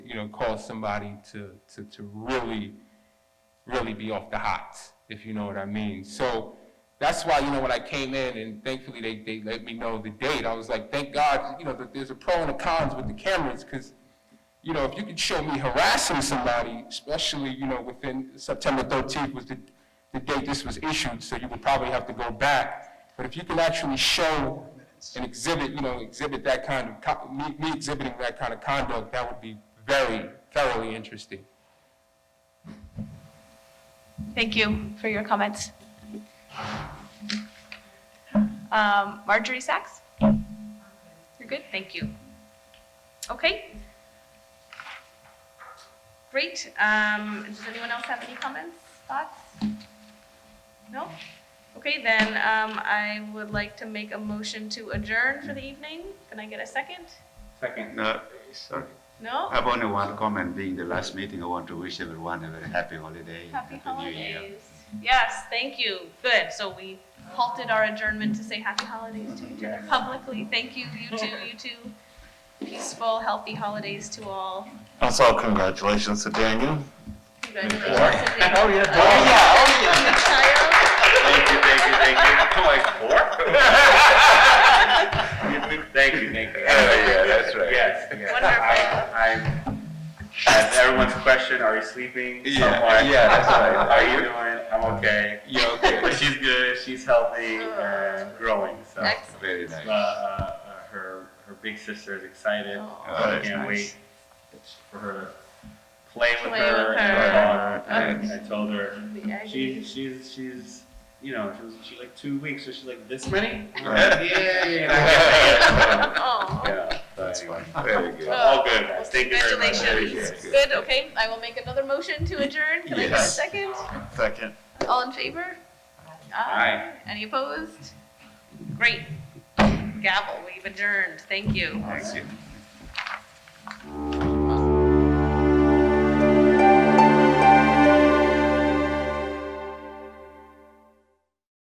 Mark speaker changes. Speaker 1: you know, cause somebody to, to, to really, really be off the hot, if you know what I mean. So that's why, you know, when I came in and thankfully they, they let me know the date, I was like, thank God, you know, that there's a pro and a cons with the cameras, because, you know, if you could show me harassing somebody, especially, you know, within September 13th was the, the date this was issued, so you would probably have to go back. But if you can actually show and exhibit, you know, exhibit that kind of, co- me me exhibiting that kind of conduct, that would be very thoroughly interesting.
Speaker 2: Thank you for your comments. Um, Marjorie Sachs? You're good, thank you. Okay. Great, um, does anyone else have any comments, thoughts? No? Okay, then, um, I would like to make a motion to adjourn for the evening. Can I get a second?
Speaker 3: Second, uh, sorry.
Speaker 2: No?
Speaker 3: I have only one comment. Being the last meeting, I want to wish everyone a very happy holiday. and
Speaker 2: Happy
Speaker 3: New Year.
Speaker 2: holidays. Yes, thank you. Good. So we halted our adjournment to say happy holidays to each other publicly. Thank you, you two, you two. Peaceful, healthy holidays to all.
Speaker 4: Also, congratulations to Daniel.
Speaker 2: Congratulations. Oh, yeah. Oh,
Speaker 5: Thank you, thank you, thank you. I'm like four? Thank you, thank you.
Speaker 3: Oh, yeah, that's right.
Speaker 5: Yes, yes.
Speaker 2: Wonderful.
Speaker 5: I, I'm, at everyone's question, are you sleeping?
Speaker 3: Yeah,
Speaker 5: Someone,
Speaker 3: yeah, that's right.
Speaker 5: How are you doing? I'm okay.
Speaker 3: Yeah, okay.
Speaker 5: But she's good, she's healthy and growing, so.
Speaker 2: Excellent.
Speaker 3: Very
Speaker 5: Uh,
Speaker 3: nice.
Speaker 5: uh, uh, her, her big sister is excited.
Speaker 2: Aw.
Speaker 3: Oh,
Speaker 5: I
Speaker 3: that's
Speaker 5: can't
Speaker 3: nice.
Speaker 5: wait for her to play with
Speaker 2: Play
Speaker 5: her
Speaker 2: with
Speaker 5: and
Speaker 2: her.
Speaker 5: her dog. And I told her,
Speaker 2: The agony.
Speaker 5: She's she's she's you know she was she like two weeks so she's like this many
Speaker 3: Right.
Speaker 5: yeah
Speaker 2: Aw.
Speaker 5: yeah
Speaker 3: That's
Speaker 5: that's
Speaker 3: fine. Very good.
Speaker 5: all good guys. thank you very much
Speaker 2: oh. Congratulations.
Speaker 3: Very good.
Speaker 2: Good, okay. I will make another motion to adjourn. Can I get a
Speaker 3: Yes.
Speaker 2: second?
Speaker 4: Second.
Speaker 2: All in favor?
Speaker 5: Aye.
Speaker 2: Any opposed? Great. Gavel, we've adjourned. Thank you.
Speaker 3: Thank you.